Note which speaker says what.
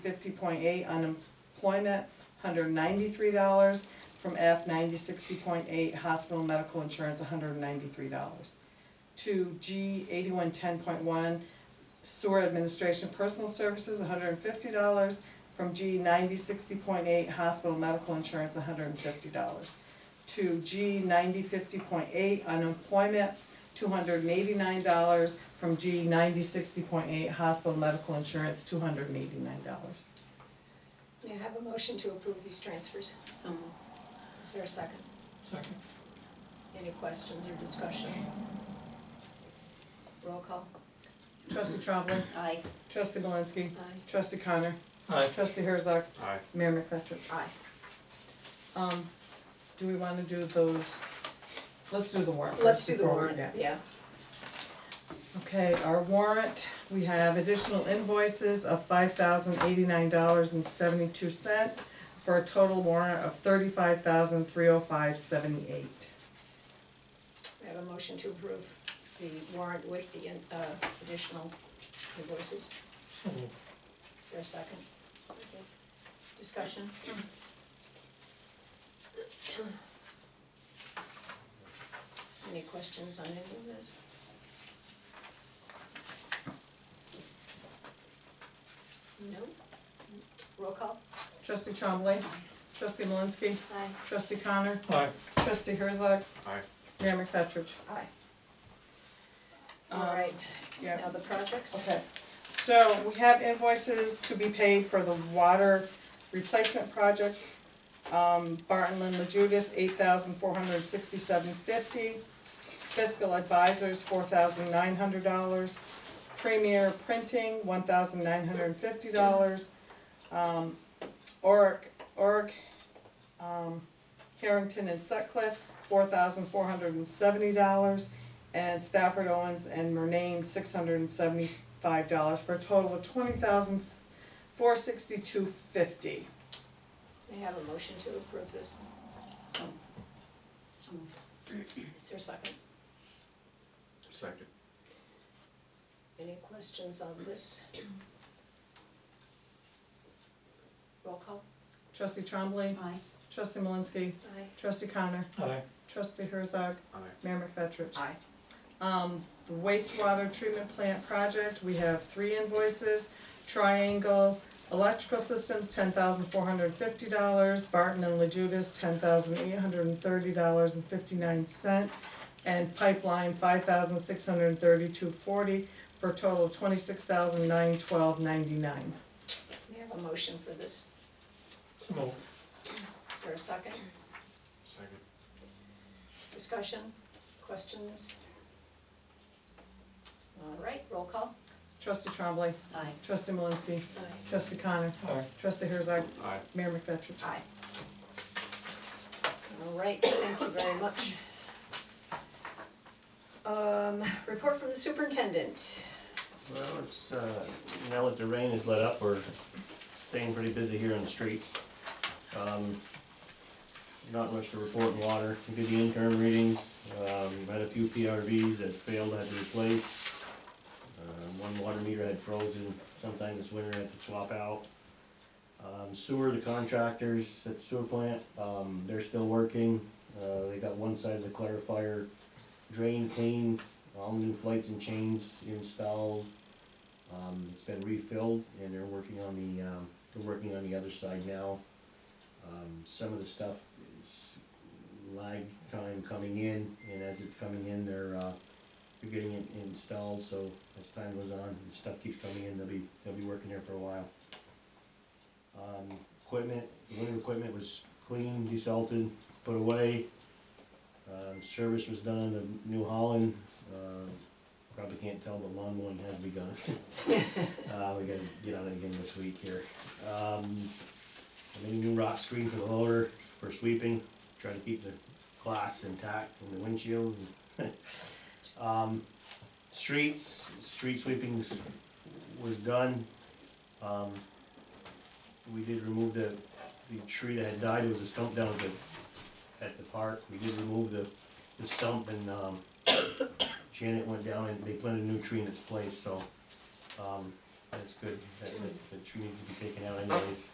Speaker 1: fifty point eight, unemployment, hundred ninety-three dollars. From F ninety sixty point eight, hospital medical insurance, hundred ninety-three dollars. To G eighty-one ten point one, sewer administration personal services, hundred and fifty dollars. From G ninety sixty point eight, hospital medical insurance, hundred and fifty dollars. To G ninety fifty point eight, unemployment, two hundred and eighty-nine dollars. From G ninety sixty point eight, hospital medical insurance, two hundred and eighty-nine dollars.
Speaker 2: May I have a motion to approve these transfers?
Speaker 3: So moved.
Speaker 2: Is there a second?
Speaker 4: Second.
Speaker 2: Any questions or discussion? Roll call.
Speaker 1: Trustee Trombley,
Speaker 3: Aye.
Speaker 1: trustee Malinsky,
Speaker 3: Aye.
Speaker 1: trustee Connor,
Speaker 4: Aye.
Speaker 1: trustee Herzog,
Speaker 5: Aye.
Speaker 1: Mayor McFetrich.
Speaker 2: Aye.
Speaker 1: Um, do we wanna do those, let's do the warrant
Speaker 2: Let's
Speaker 1: first
Speaker 2: do the
Speaker 1: before we-
Speaker 2: warrant,
Speaker 1: yeah.
Speaker 2: yeah.
Speaker 1: Okay, our warrant, we have additional invoices of five thousand eighty-nine dollars and seventy-two cents for a total warrant of thirty-five thousand three oh five seventy-eight.
Speaker 2: May I have a motion to approve the warrant with the uh, additional invoices?
Speaker 4: So moved.
Speaker 2: Is there a second? Discussion? Any questions on any of this? No? Roll call?
Speaker 1: Trustee Trombley, trustee Malinsky,
Speaker 2: Aye.
Speaker 1: trustee Connor,
Speaker 4: Aye.
Speaker 1: trustee Herzog,
Speaker 5: Aye.
Speaker 1: Mayor McFetrich.
Speaker 2: Aye.
Speaker 1: Um,
Speaker 2: All right,
Speaker 1: Yeah.
Speaker 2: now the projects?
Speaker 1: Okay, so we have invoices to be paid for the water replacement project. Um, Barton Lynn LaJudas, eight thousand four hundred sixty-seven fifty. Fiscal advisors, four thousand nine hundred dollars. Premier Printing, one thousand nine hundred and fifty dollars. Um, Oric, Oric, um, Harrington and Sutcliffe, four thousand four hundred and seventy dollars and Stafford Owens and Murnane, six hundred and seventy-five dollars for a total of twenty thousand four sixty-two fifty.
Speaker 2: May I have a motion to approve this?
Speaker 3: So. So moved.
Speaker 2: Is there a second?
Speaker 5: Second.
Speaker 2: Any questions on this? Roll call?
Speaker 1: Trustee Trombley,
Speaker 3: Aye.
Speaker 1: trustee Malinsky,
Speaker 2: Aye.
Speaker 1: trustee Connor,
Speaker 4: Aye.
Speaker 1: trustee Herzog,
Speaker 5: Aye.
Speaker 1: Mayor McFetrich.
Speaker 2: Aye.
Speaker 1: Um, the wastewater treatment plant project, we have three invoices. Triangle Electrical Systems, ten thousand four hundred and fifty dollars, Barton and LaJudas, ten thousand eight hundred and thirty dollars and fifty-nine cents, and Pipeline, five thousand six hundred and thirty-two forty, for a total of twenty-six thousand nine twelve ninety-nine.
Speaker 2: May I have a motion for this?
Speaker 4: So moved.
Speaker 2: Is there a second?
Speaker 5: Second.
Speaker 2: Discussion, questions? All right, roll call.
Speaker 1: Trustee Trombley,
Speaker 3: Aye.
Speaker 1: trustee Malinsky,
Speaker 2: Aye.
Speaker 1: trustee Connor,
Speaker 4: Aye.
Speaker 1: trustee Herzog,
Speaker 5: Aye.
Speaker 1: Mayor McFetrich.
Speaker 2: Aye. All right, thank you very much. Um, report from the superintendent.
Speaker 6: Well, it's, uh, now that the rain has let up, we're staying pretty busy here on the streets. Um, Not much to report in water, we did the interim readings, um, had a few PRVs that failed, had to replace. Uh, One water meter had frozen sometime this winter, had to swap out. Um, Sewer, the contractors at the sewer plant, um, they're still working, Uh, they got one side of the clarifier drain clean, all new flights and chains installed. Um, it's been refilled and they're working on the, um, they're working on the other side now. Um, some of the stuff is lag time coming in and as it's coming in, they're, uh, they're getting it installed, so as time goes on and stuff keeps coming in, they'll be, they'll be working there for a while. Um, equipment, the winter equipment was cleaned, desalted, put away. Um, service was done in the New Holland, um, probably can't tell, but lawn mowing has begun. Uh, we gotta get on it again this week here. Um, I made a new rock screen for the loader for sweeping, try to keep the glass intact and the windshield. Um, streets, street sweeping was done. Um, we did remove the, the tree that had died, it was a stump down at the, at the park, we did remove the, the stump and, um, Janet went down and they planted a new tree in its place, so, um, that's good, that, that, that you need to be taken out. I know